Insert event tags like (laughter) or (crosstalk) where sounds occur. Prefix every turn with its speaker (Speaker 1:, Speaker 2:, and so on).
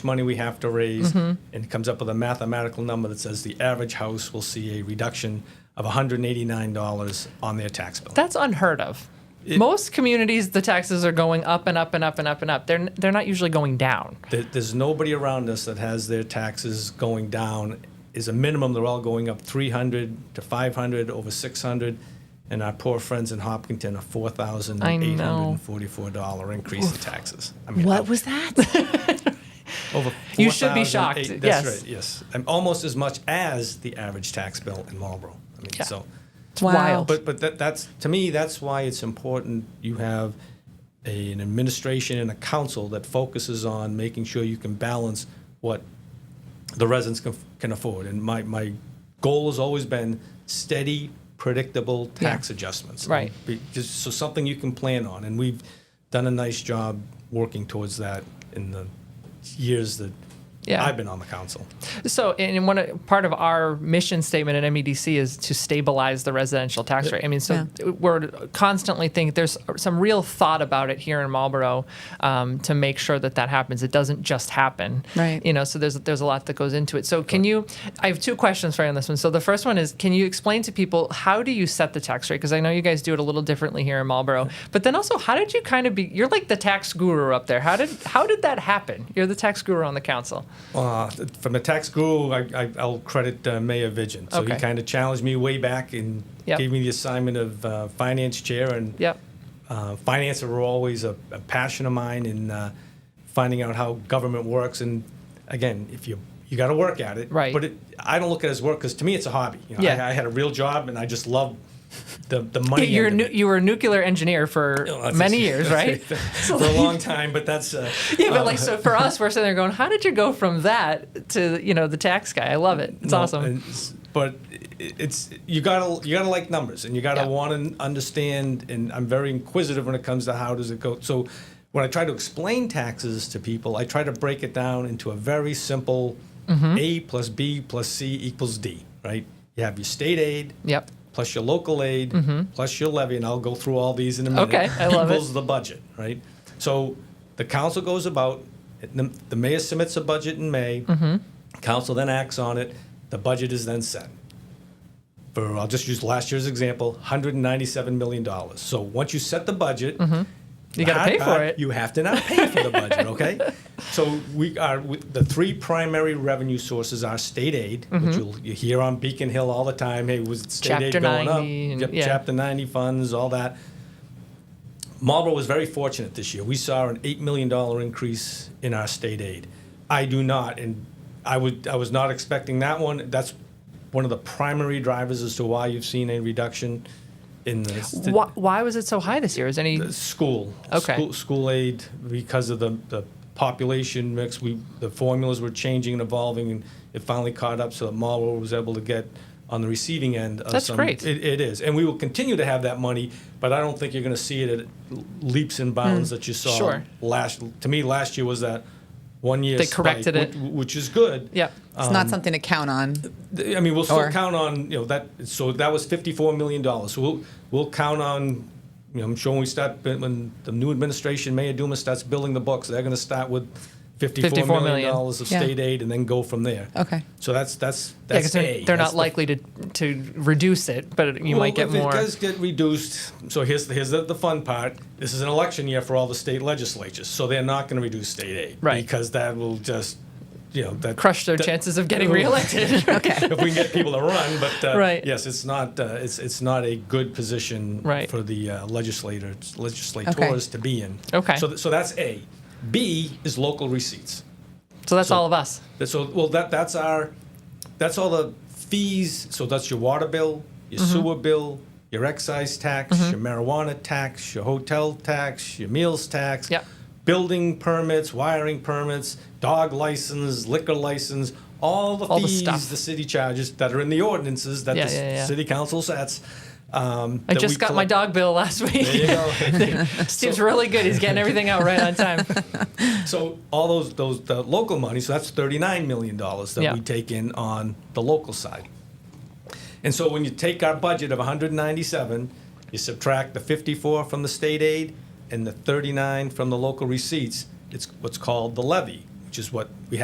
Speaker 1: money we have to raise, and comes up with a mathematical number that says the average house will see a reduction of $189 on their tax bill.
Speaker 2: That's unheard of. Most communities, the taxes are going up and up and up and up and up. They're n- they're not usually going down.
Speaker 1: There, there's nobody around us that has their taxes going down. Is a minimum, they're all going up 300 to 500, over 600, and our poor friends in Hopkinton, a $4,844 increase in taxes. I mean,
Speaker 3: What was that?
Speaker 1: Over
Speaker 2: You should be
Speaker 1: 4,008
Speaker 2: shocked,
Speaker 1: That's
Speaker 2: yes.
Speaker 1: right. Yes, and almost as much as the average tax bill in Marlboro. I mean,
Speaker 2: Yeah.
Speaker 1: so,
Speaker 2: (laughs) It's wild.
Speaker 1: but but that, that's to me that's why it's important you have a, an administration and a council that focuses on making sure you can balance what the residents can, can afford. And my my goal has always been steady, predictable tax adjustments.
Speaker 2: Right.
Speaker 1: Be- Just so something you can plan on, and we've done a nice job working towards that in the years that
Speaker 2: Yeah.
Speaker 1: I've been on the council.
Speaker 2: So, and one of- part of our mission statement at MEDC is to stabilize the residential tax rate. I mean, so we're constantly thinking there's some real thought about it here in Marlboro um, to make sure that that happens. It doesn't just happen,
Speaker 3: Right.
Speaker 2: You know, so there's there's a lot that goes into it. So, can you? I have two questions for you on this one. So, the first one is, can you explain to people how do you set the tax rate? Because I know you guys do it a little differently here in Marlboro, but then also, how did you kind of be? You're like the tax guru up there. How did how did that happen? You're the tax guru on the council.
Speaker 1: Uh, from the tax guru, I, I, I'll credit uh, Mayor Vigil. So he
Speaker 2: Okay.
Speaker 1: kind of challenged me way back and
Speaker 2: Yep.
Speaker 1: gave me the assignment of uh, finance chair and
Speaker 2: Yep.
Speaker 1: uh, finance were always a, a passion of mine in uh, finding out how government works. And again, if you you got to work at it,
Speaker 2: Right.
Speaker 1: But it, I don't look at it as work because to me it's a hobby. You know,
Speaker 2: Yeah.
Speaker 1: I, I had a real job and I just loved the the money.
Speaker 2: (laughs) You're
Speaker 1: end
Speaker 2: nu-
Speaker 1: of it.
Speaker 2: you were a nuclear engineer for
Speaker 1: Well, that's-
Speaker 2: many years,
Speaker 1: (laughs)
Speaker 2: right?
Speaker 1: for
Speaker 2: (laughs)
Speaker 1: a long time, but that's uh,
Speaker 2: yeah, but like so for us, we're sitting there going, "How did you go from that to you know the tax guy?" I love it. It's
Speaker 1: No,
Speaker 2: awesome.
Speaker 1: it's- but i- it's you gotta you gotta like numbers, and you gotta
Speaker 2: Yeah.
Speaker 1: want to understand. And I'm very inquisitive when it comes to how does it go. So when I try to explain taxes to people, I try to break it down into a very simple
Speaker 2: Mm-hmm.
Speaker 1: A plus B plus C equals D. Right? You have your state aid.
Speaker 2: Yep.
Speaker 1: Plus your local aid, plus your levy, and I'll go through all these in a minute.
Speaker 2: Mm-hmm. Okay, I love it.
Speaker 1: equals the budget, right? So the council goes about, the, the mayor submits a budget in May.
Speaker 2: Mm-hmm.
Speaker 1: Council then acts on it. The budget is then set. For, I'll just use last year's example, $197 million. So once you set the budget,
Speaker 2: Mm-hmm.
Speaker 1: the
Speaker 2: You gotta
Speaker 1: hard
Speaker 2: pay for
Speaker 1: part,
Speaker 2: it.
Speaker 1: You have to not pay for the
Speaker 2: (laughs)
Speaker 1: budget, okay? so we are with the three primary revenue sources are state aid,
Speaker 2: Mm-hmm.
Speaker 1: which you'll, you hear on Beacon Hill all the time. Hey, was state aid
Speaker 2: Chapter
Speaker 1: going
Speaker 2: 90
Speaker 1: up?
Speaker 2: and-
Speaker 1: Yep,
Speaker 2: yeah.
Speaker 1: Chapter 90 funds, all that. Marlboro was very fortunate this year. We saw an eight million dollar increase in our state aid. I do not, and I would I was not expecting that one. That's one of the primary drivers as to why you've seen a reduction in the st-
Speaker 2: why, why was it so high this year? Is any
Speaker 1: school.
Speaker 2: Okay.
Speaker 1: School, school aid because of the, the population mix. We the formulas were changing and evolving, and it finally caught up. So that Marlboro was able to get on the receiving end. Of
Speaker 2: That's
Speaker 1: some,
Speaker 2: great.
Speaker 1: It, it is, and we will continue to have that money, but I don't think you're going to see it at leaps and bounds that you saw
Speaker 2: Hmm. Sure.
Speaker 1: last. To me, last year was that one year
Speaker 2: They
Speaker 1: spike,
Speaker 2: corrected it.
Speaker 1: which, which is good.
Speaker 2: Yep.
Speaker 3: It's not something to count on.
Speaker 1: I mean, we'll still
Speaker 3: Or-
Speaker 1: count on you know that. So that was fifty-four million dollars. So we'll we'll count on. You know, I'm sure when we start when the new administration, Mayor Dumas starts building the books, they're going to start with fifty-four,
Speaker 2: $54
Speaker 1: million
Speaker 2: million.
Speaker 1: dollars of
Speaker 3: Yeah.
Speaker 1: state aid and then go from there.
Speaker 3: Okay.
Speaker 1: So that's that's
Speaker 2: yeah,
Speaker 1: that's
Speaker 2: 'cause they're,
Speaker 1: A.
Speaker 2: they're
Speaker 1: That's
Speaker 2: not
Speaker 1: the-
Speaker 2: likely to to reduce it, but you might
Speaker 1: Well,
Speaker 2: get
Speaker 1: if
Speaker 2: more.
Speaker 1: It does get reduced. So here's the, here's the, the fun part. This is an election year for all the state legislatures, so they're not going to reduce state aid
Speaker 2: Right.
Speaker 1: because that will just you know that
Speaker 2: Crush their
Speaker 1: that-
Speaker 2: chances
Speaker 1: (laughs)
Speaker 2: of getting
Speaker 1: Ooh.
Speaker 2: reelected. (laughs) okay.
Speaker 1: if we can get people to run. But uh,
Speaker 2: Right.
Speaker 1: yes, it's not uh, it's it's not a good position
Speaker 2: Right.
Speaker 1: for the uh, legislators legislators to be in.
Speaker 2: Okay.
Speaker 1: So th- so that's A. B is local receipts.
Speaker 2: So that's
Speaker 1: So-
Speaker 2: all of us.
Speaker 1: That- So well that that's our that's all the fees. So that's your water bill, your
Speaker 2: Mm-hmm.
Speaker 1: sewer bill. Your excise tax, your marijuana tax, your hotel tax, your meals tax,
Speaker 2: Yep.
Speaker 1: building permits, wiring permits, dog license, liquor license, all the
Speaker 2: All the
Speaker 1: fees
Speaker 2: stuff.
Speaker 1: the city charges that are in the ordinances that
Speaker 2: Yeah,
Speaker 1: the
Speaker 2: yeah, yeah.
Speaker 1: city council sets. Um,
Speaker 2: I
Speaker 1: that
Speaker 2: just
Speaker 1: we
Speaker 2: got my
Speaker 1: collect-
Speaker 2: dog bill last week. (laughs)
Speaker 1: There you go.
Speaker 2: Steve's really good. He's getting everything out right on time.
Speaker 1: so all those those the local money. So that's thirty nine million dollars that
Speaker 2: Yeah.
Speaker 1: we take in on the local side. And so when you take our budget of one hundred ninety seven, you subtract the fifty four from the state aid and the thirty nine from the local receipts. It's what's called the levy. which is what we have.